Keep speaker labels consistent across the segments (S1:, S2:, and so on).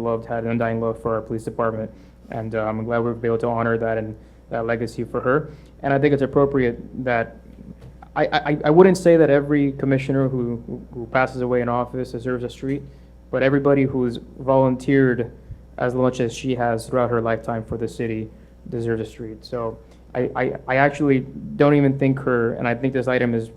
S1: loved, had an undying love for our police department. And uh, I'm glad we've been able to honor that and that legacy for her. And I think it's appropriate that, I, I, I wouldn't say that every commissioner who, who passes away in office deserves a street, but everybody who's volunteered as much as she has throughout her lifetime for the city deserves a street. So I, I, I actually don't even think her, and I think this item is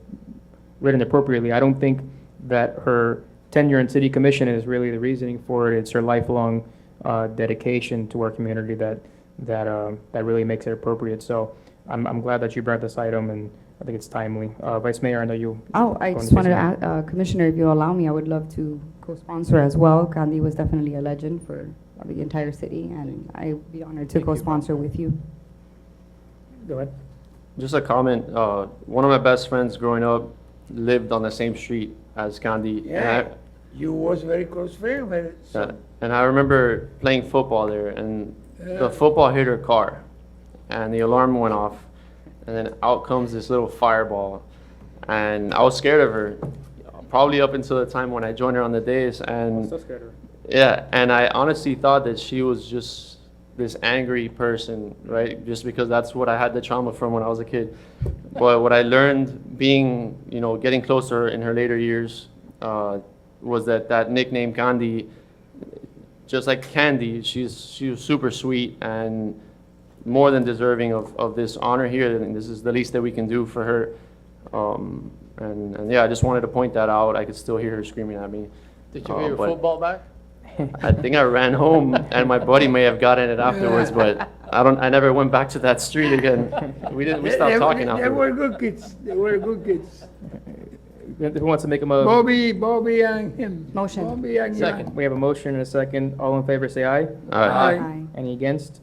S1: written appropriately. I don't think that her tenure in city commission is really the reasoning for it. It's her lifelong uh, dedication to our community that, that, uh, that really makes it appropriate. So I'm, I'm glad that you brought this item, and I think it's timely. Uh, Vice Mayor, I know you.
S2: Oh, I just wanted to add, uh, Commissioner, if you allow me, I would love to co-sponsor as well. Gandhi was definitely a legend for the entire city, and I'd be honored to
S1: Thank you.
S2: co-sponsor with you.
S1: Go ahead.
S3: Just a comment. Uh, one of my best friends growing up lived on the same street as Gandhi.
S4: Yeah,
S3: And
S4: you was very close friend, but
S3: I,
S4: so,
S3: and I remember playing football there, and the football hit her car, and the alarm went off, and then out comes this little fireball, and I was scared of her, probably up until the time when I joined her on the days, and Yeah, and I honestly thought that she was just this angry person, right? Just because that's what I had the trauma from when I was a kid. But what I learned being, you know, getting closer in her later years uh, was that that nickname Gandhi, just like Candy, she's she was super sweet and more than deserving of, of this honor here. And this is the least that we can do for her. Um, and, and yeah, I just wanted to point that out. I could still hear her screaming at me.
S5: Did you
S3: Uh,
S5: get your
S3: but-
S5: football back?
S3: I think I ran home, and my buddy may have gotten it afterwards, but I don't. I never went back to that street again. We didn't. We
S4: They-
S3: stopped
S4: they-
S3: talking
S4: They were
S3: afterwards.
S4: good kids, they were good kids.
S1: Who wants to make a mo?
S4: Bobby, Bobby and him.
S2: Motion.
S4: Bobby and him.
S5: Second.
S1: We have a motion and a second. All in favor, say aye.
S3: All right.
S4: Aye.
S1: Any against?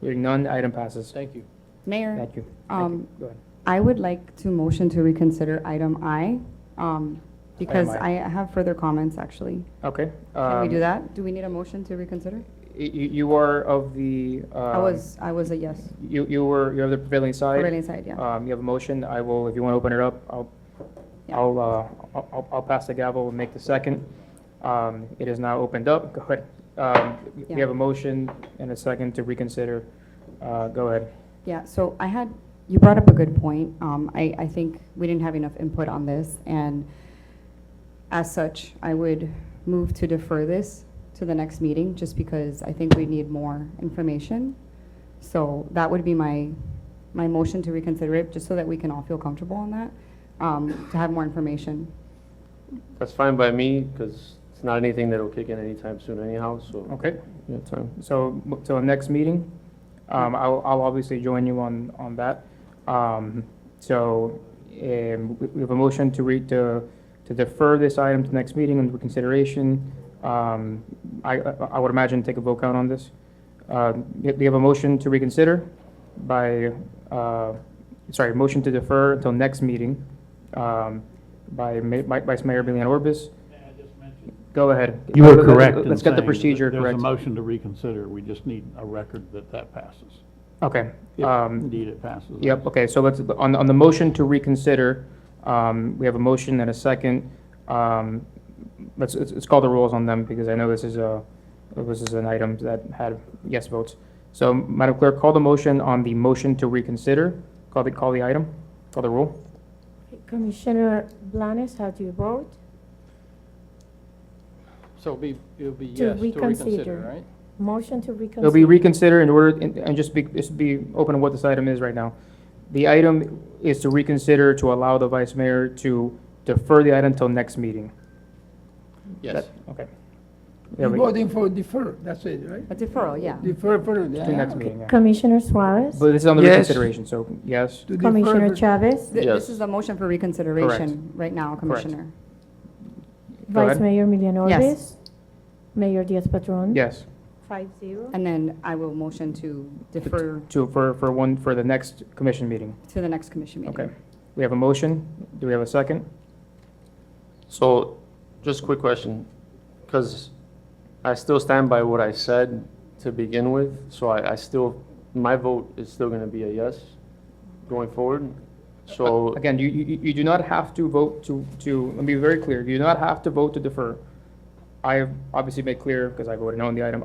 S1: Hearing none, item passes.
S5: Thank you.
S2: Mayor,
S1: Thank you. Thank you.
S2: um,
S1: Go ahead.
S2: I would like to motion to reconsider item I, um, because I
S1: I.
S2: have further comments, actually.
S1: Okay.
S2: Can we
S1: um,
S2: do that? Do we need a motion to reconsider?
S1: y- You, you are of the. uh,
S2: I was, I was a yes.
S1: You, you were, you're of the prevailing side.
S2: Prevailing side, yeah.
S1: Um, you have a motion, I will, if you want to open it up, I'll,
S2: Yeah.
S1: I'll, uh, I'll- I'll, I'll pass the gavel and make the second. Um, it is now opened up, go ahead. Um, we
S2: Yeah.
S1: have a motion and a second to reconsider, uh, go ahead.
S2: Yeah, so I had, you brought up a good point. Um, I, I think we didn't have enough input on this, and as such, I would move to defer this to the next meeting, just because I think we need more information. So that would be my, my motion to reconsider it, just so that we can all feel comfortable on that, um, to have more information.
S3: That's fine by me because it's not anything that'll kick in anytime soon, anyhow. So
S1: Okay,
S3: yeah, time.
S1: so, till the next meeting, um, I'll, I'll obviously join you on, on that. Um, so, um, we we have a motion to read, to, to defer this item to next meeting under consideration. Um, I, I I would imagine take a vote count on this. Uh, do you have a motion to reconsider by, uh, sorry, motion to defer until next meeting, um, by Ma- by Vice Mayor Billion Orbis? Go ahead.
S6: You were correct in
S1: Let's get
S6: saying
S1: the
S6: that
S1: procedure correct.
S6: There's a motion to reconsider, we just need a record that that passes.
S1: Okay.
S6: If
S1: um,
S6: Indeed, it passes.
S1: Yep, okay, so let's, on, on the motion to reconsider, um, we have a motion and a second. Um, Let's, let's let's call the rules on them, because I know this is a, this is an item that had yes votes. So, Madam Clerk, call the motion on the motion to reconsider. Call the, call the item, call the rule.
S7: Commissioner Blanes, how do you vote?
S5: So it'll be, it'll be
S7: To
S5: yes to reconsider,
S7: reconsider.
S5: right?
S7: Motion to reconsider.
S1: It'll be reconsidered in order, and and just be, just be open on what this item is right now. The item is to reconsider to allow the Vice Mayor to defer the item until next meeting.
S5: Yes.
S1: That- Okay. There
S4: You
S1: we go.
S4: voting for defer, that's it, right?
S2: A deferral, yeah.
S4: Defer for, yeah.
S1: To the next meeting, yeah.
S7: Commissioner Suarez?
S1: But this is on the
S4: Yes.
S1: reconsideration, so yes.
S4: To defer
S7: Commissioner
S4: for-
S7: Chavez?
S2: Th-
S3: Yes.
S2: This is a motion for reconsideration right now, Commissioner.
S1: Go ahead.
S7: Vice Mayor Milian
S2: Yes.
S7: Orbis? Mayor Diaz-Patron?
S1: Yes,
S7: Five zero.
S2: And then I will motion to defer
S1: to, for, for one, for the next commission meeting.
S2: to the next commission meeting.
S1: Okay. We have a motion. Do we have a second?
S3: So, just a quick question, because I still stand by what I said to begin with, so I, I still, my vote is still gonna be a yes going forward. So,
S1: Again, you, you, you do not have to vote to, to, let me be very clear, you do not have to vote to defer. I obviously made clear, because I voted no on the item,